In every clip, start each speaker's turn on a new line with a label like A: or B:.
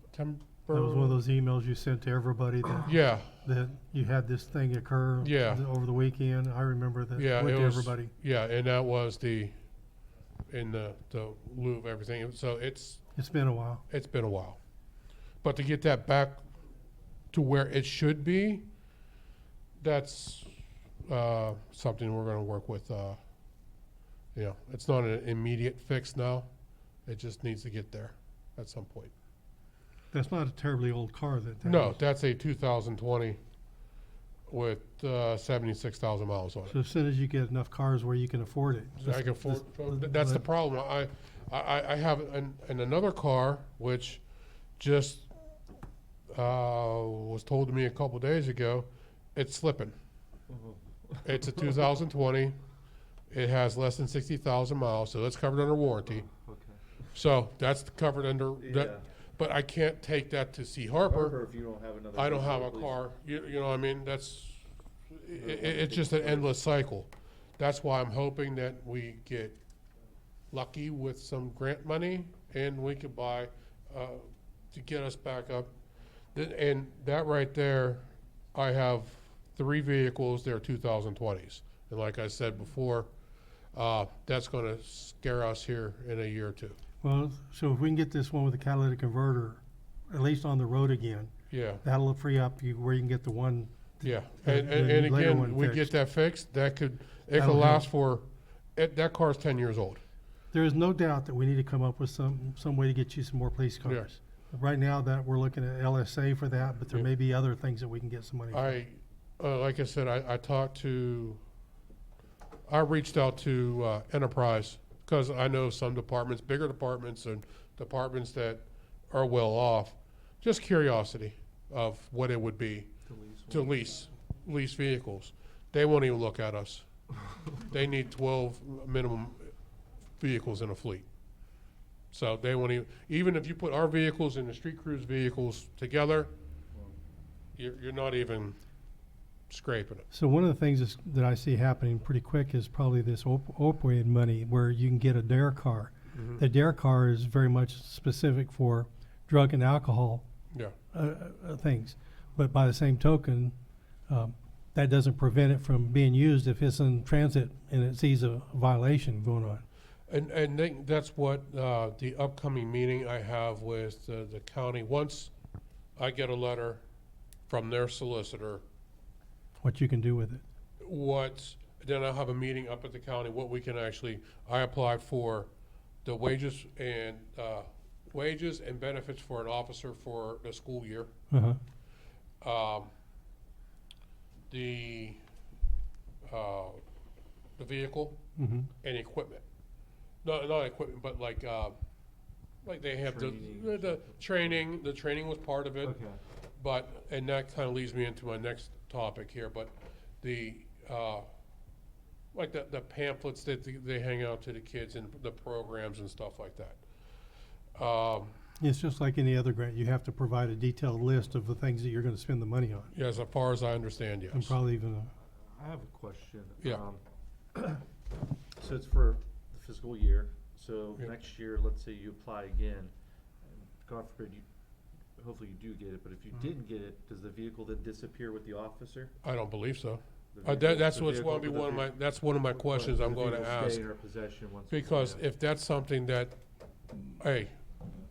A: September.
B: That was one of those emails you sent to everybody that,
A: Yeah,
B: that you had this thing occur.
A: Yeah.
B: th- Over the weekend, I remember that,
A: yeah,
B: went
A: it
B: to
A: was,
B: everybody.
A: yeah, and that was the, in the, the lieu of everything, so it's,
B: It's been a while.
A: it's been a while. But to get that back to where it should be, that's uh, something we're gonna work with, uh, you know, it's not an immediate fix now, it just needs to get there at some point.
B: That's not a terribly old car that. that
A: No,
B: was.
A: that's a two thousand twenty with uh, seventy-six thousand miles on it.
B: So as soon as you get enough cars where you can afford it.
A: I
B: just-
A: can afford,
B: just
A: so
B: let-
A: th- that's the
B: let-
A: problem. I, I- I, I have an, an another car, which just, uh, was told to me a couple days ago, it's slipping. It's a two thousand twenty, it has less than sixty thousand miles, so that's covered under warranty. So that's covered under,
C: Yeah.
A: that, but I can't take that to Sea Harbor.
C: if you don't have another.
A: I don't have a
C: vehicle,
A: car, you, you know, what I mean, that's, i- i- it's just an endless cycle. That's why I'm hoping that we get lucky with some grant money and we could buy, uh, to get us back up. Th- And that right there, I have three vehicles, they're two thousand twenties. And like I said before, uh, that's gonna scare us here in a year or two.
B: Well, so if we can get this one with a catalytic converter, at least on the road again,
A: Yeah,
B: that'll free up you where you can get the one.
A: Yeah,
B: the-
A: and, and,
B: the
A: and
B: later one
A: again, we get
B: fixed.
A: that fixed, that could, it could
B: That'll
A: last for, it, that car's ten years old.
B: There is no doubt that we need to come up with some, some way to get you some more police
A: Yeah.
B: cars. Right now that, we're looking at LSA for that, but there
A: Yeah.
B: may be other things that we can get some money for.
A: I, uh, like I said, I, I talked to, I reached out to, uh, Enterprise, cause I know some departments, bigger departments and departments that are well off, just curiosity of what it would be
C: to lease
A: to
C: one.
A: lease, lease vehicles. They won't even look at us. They need twelve minimum vehicles in a fleet. So they won't even, even if you put our vehicles and the street crews vehicles together, you're, you're not even scraping it.
B: So one of the things that's- that I see happening pretty quick is probably this op- opioid money where you can get a DARE car.
A: Mm-hmm.
B: The DARE car is very much specific for drug and alcohol
A: Yeah,
B: uh, uh, things. But by the same token, um, that doesn't prevent it from being used if it's in transit and it sees a violation going on.
A: and, and they- that's what, uh, the upcoming meeting I have with uh, the, the county, once I get a letter from their solicitor,
B: What you can do with it.
A: what, then I'll have a meeting up at the county, what we can actually, I applied for the wages and, uh, wages and benefits for an officer for the school year.
B: Uh-huh.
A: Um, the, uh, the vehicle
B: Mm-hmm.
A: and equipment. Not, not equipment, but like, uh, like they have the,
C: Training or
A: the training, the training was part of it.
C: Okay.
A: But, and that kind of leads me into my next topic here, but the, uh, like the, the pamphlets that they- they hang out to the kids and the programs and stuff like that. Um,
B: It's just like any other grant. You have to provide a detailed list of the things that you're going to spend the money on,
A: yeah, as far as I understand,
B: and
A: yes.
B: probably even a
C: I have a question.
A: Yeah.
C: Um, So it's for the fiscal year, so
A: Yeah.
C: next year, let's say you apply again, and God forbid you, hopefully you do get it, but if
A: Mm-hmm.
C: you didn't get it, does the vehicle then disappear with the officer?
A: I don't believe so.
C: The
A: Uh,
C: vehicle-
A: that, that's
C: the
A: what's
C: vehicle-
A: gonna be
C: the
A: one of
C: vehi-
A: my, that's one of my
C: the-
A: questions I'm
C: the
A: gonna
C: vehicle stay
A: ask.
C: in our possession once we
A: Because
C: find out.
A: if that's something that, hey,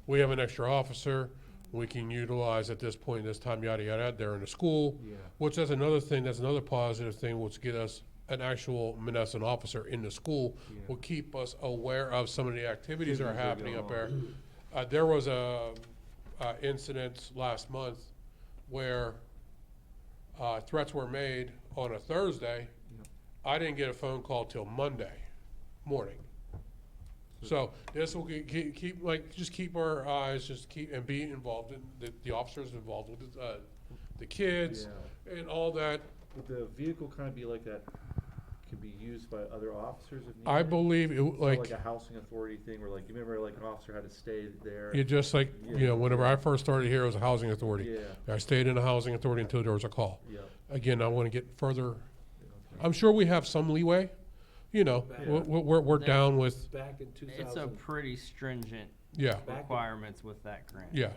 A: we have an extra officer, we can utilize at this point, this time, yada, yada, they're in the school.
C: Yeah.
A: Which that's another thing, that's another positive thing, which get us an actual Menneson officer in the school,
C: Yeah.
A: will keep us aware of some of the activities that are happening
C: Activities that go
A: up there. Uh, there was a, uh, incident last month where, uh, threats were made on a Thursday.
C: Yep.
A: I didn't get a phone call till Monday morning. So this will ge- ge- keep, like, just keep our eyes, just keep, and be involved, in the, the officers involved with, uh, the kids and all that.
C: Would the vehicle kind of be like that, could be used by other officers if needed?
A: I believe, it
C: Or
A: like,
C: Like a housing authority thing, where like, you remember like an officer had to stay there?
A: you just like, you know, whenever I first started here, it was a housing authority.
C: Yeah,
A: I stayed in a housing authority until there was a call.
C: yeah.
A: Again, I want to get further, I'm sure we have some leeway, you know, we're, we're, we're down with,
D: It's a pretty stringent
A: yeah,
D: requirements with that grant.
A: yeah.